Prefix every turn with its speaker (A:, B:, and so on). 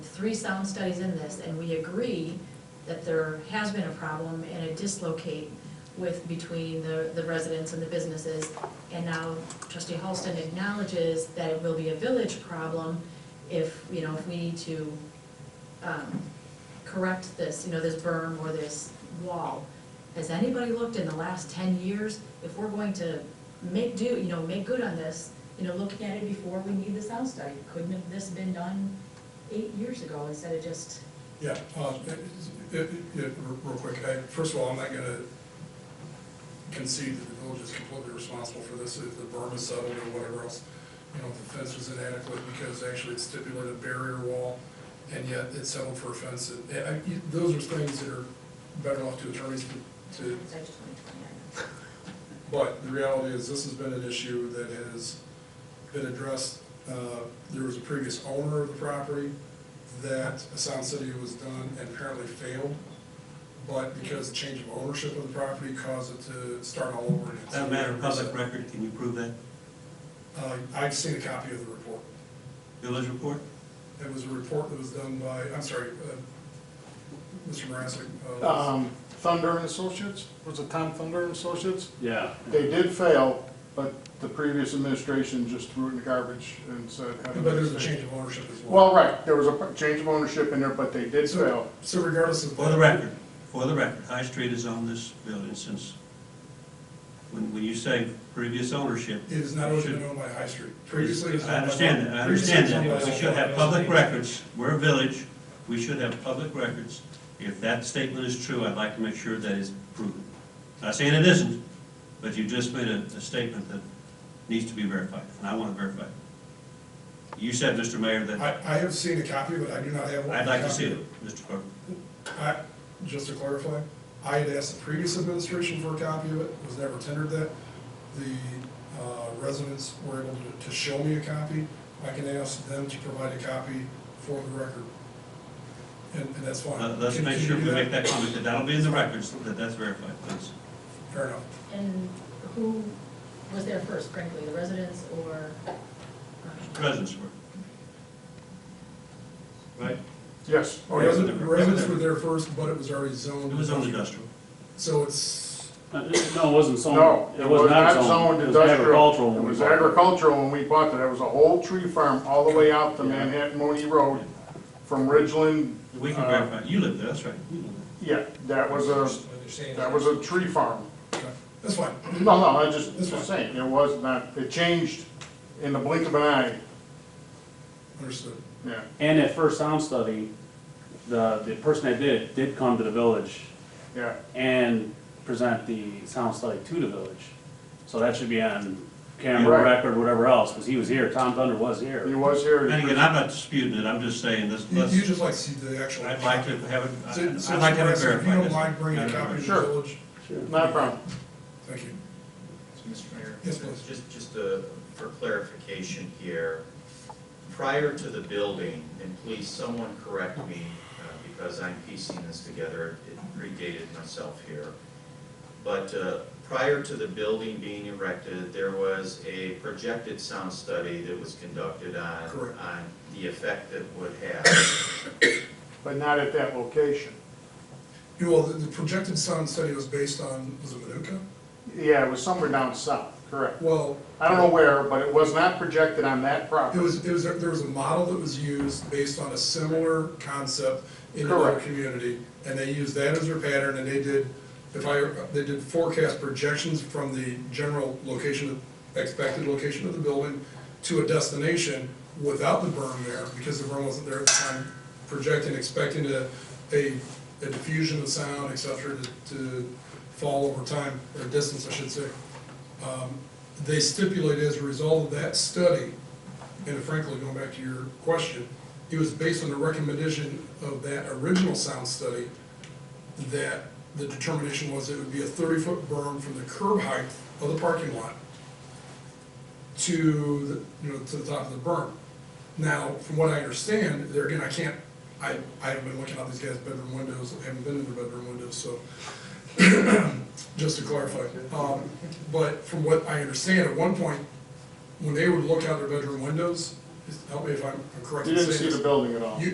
A: three sound studies in this, and we agree that there has been a problem and a dislocate with, between the, the residents and the businesses. And now trustee Halston acknowledges that it will be a village problem if, you know, if we need to, um, correct this, you know, this berm or this wall. Has anybody looked in the last ten years, if we're going to make do, you know, make good on this, you know, looking at it before we need the sound study, couldn't have this been done eight years ago instead of just,
B: Yeah, um, it- it- it- real real quick, I, first of all, I'm not gonna concede that the village is completely responsible for this, if the berm is settled or whatever else. You know, if the fence was inadequate because actually it stipulated a barrier wall, and yet it settled for a fence. And- and I- you- Those are things that are better off to attorneys to- to
A: it's actually twenty twenty, I know.
B: but the reality is, this has been an issue that has been addressed. Uh, There was a previous owner of the property that a sound study was done and apparently failed. But because the change of ownership of the property caused it to start all over. again.
C: That matter of public record, can you prove that?
B: Uh, I've seen a copy of the report.
C: Village report?
B: It was a report that was done by, I'm sorry, uh, Mr. Marasek. uh,
D: Um, Thunder and Associates, was it Tom Thunder and Associates?
E: Yeah.
D: They did fail, but the previous administration just threw it in the garbage and said. "Have a
B: But there's a
D: nice day."
B: change of ownership as well.
D: Well, right, there was a change of ownership in there, but they did fail.
B: So so regardless of.
C: For the record, for the record, High Street has owned this building since, when, when you say previous ownership.
B: It is not
C: you
B: always
C: should-
B: been owned by High Street. Previously, it was
C: I
B: owned by-
C: understand that, I
B: previously it
C: understand
B: was
C: that,
B: owned
C: but
B: by-
C: we should have public records, we're a village, we should have public records. If that statement is true, I'd like to make sure that is proven. Not saying it isn't, but you just made a, a statement that needs to be verified, and I want to verify it. You said, Mr. Mayor,
B: I,
C: that,
B: I have seen a copy, but I do not have one.
C: I'd like to see it, Mr. Clerk.
B: I- Just to clarify, I had asked the previous administration for a copy of it, was never tendered that. The uh, residents were able to- to show me a copy. I can ask them to provide a copy for the record. And, and that's fine.
C: Let- Let's
B: Can-
C: make
B: can
C: sure
B: you
C: we
B: do
C: make that comment, that that'll be in the records, that that's verified, please.
B: Fair enough.
A: And who was there first, frankly, the residents or? um,
C: Residents were. Right?
D: Yes,
B: The
D: oh, yes,
B: Residents, the residents were there first, but it was already zoned.
C: It was on industrial.
B: So it's,
E: No, Uh, it wasn't zoned.
D: no,
E: It was not zoned. It was agricultural.
D: It was agricultural when we bought it, it was a whole tree farm all the way out to
E: Yeah.
D: Manhattan Mooney Road from Ridgeland.
C: We can
D: uh,
C: verify, you live there, that's right, you live
D: Yeah, that was a, that was a tree farm.
B: okay, that's fine.
D: No, no, I just,
B: That's
D: just
B: fine.
D: saying, it was not, it changed in the blink of an eye,
B: Understood.
D: yeah.
E: And that first sound study, the, the person that did it did come to the village
D: Yeah,
E: and present the sound study to the village. So that should be on camera,
D: Right.
E: record, whatever else, because he was here, Tom Thunder was
D: he
E: here.
D: was
C: there.
D: here. he
C: And again, I'm not disputing it, I'm just saying this,
B: You
C: let's,
B: you just like to see the actual.
C: I'd like to have it,
B: So- so,
C: I'd like to have
B: Mr. Raskin,
C: it
B: If you
C: verified.
B: don't mind bringing a copy to the
D: Sure.
B: village,
D: pres- Not a problem.
B: thank you.
F: So, Mr. Mayor?
B: Yes, please.
F: Just, just uh, for clarification here, prior to the building, and please someone correct me, uh, because I'm piecing this together, it predated myself here. But uh, prior to the building being erected, there was a projected sound study that was conducted on,
B: Correct.
F: on the effect that would have.
D: But not at that location.
B: You know, the, the projected sound study was based on, was it Manuka?
D: Yeah, it was somewhere down south, correct.
B: Well,
D: I don't know where, but it was not projected on that
B: it
D: property.
B: was, it was, there was a model that was used based on a similar concept in another
D: Correct.
B: community, and they used that as their pattern, and they did, if I, they did forecast projections from the general location, expected location of the building to a destination without the berm there, because the berm wasn't there at the time, projecting, expecting a, a a diffusion of sound, et cetera, to, to fall over time, or distance, I should say. Um, They stipulate as a result of that study, and frankly, going back to your question, it was based on the recommendation of that original sound study that the determination was it would be a thirty-foot berm from the curb height of the parking lot to, the you know, to the top of the berm. Now, from what I understand, there again, I can't, I, I haven't been looking out these guys' bedroom windows, I haven't been in their bedroom windows, so just to clarify. Um, But from what I understand, at one point, when they would look out their bedroom windows, help me if I'm correct
D: You
B: in saying
D: didn't
B: this.
D: see the building at all.
B: You-